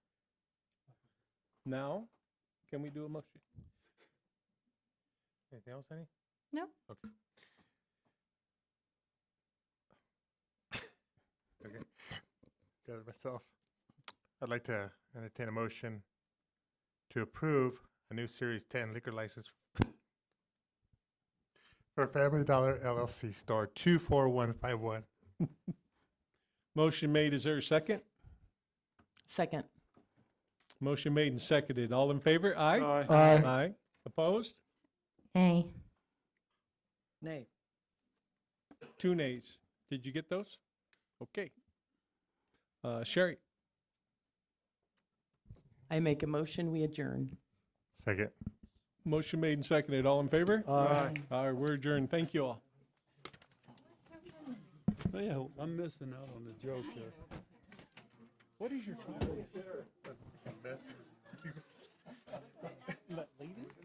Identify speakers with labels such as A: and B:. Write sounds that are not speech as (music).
A: Now, can we do a motion? Anything else, any?
B: No.
C: (laughs) Okay. Got it myself. I'd like to entertain a motion to approve a new Series 10 liquor license for Family Dollar LLC Store 24151.
A: Motion made, is there a second?
D: Second.
A: Motion made and seconded. All in favor? Aye.
C: Aye.
A: Aye. Opposed?
B: Nay.
D: Nay.
A: Two nays. Did you get those? Okay. Uh, Sherry,
D: I make a motion, we adjourn.
C: Second.
A: motion made and seconded. All in favor?
D: Aye.
A: All right, we're adjourned. Thank you all.
E: Yeah, I'm missing out on the joke here.
A: What is your?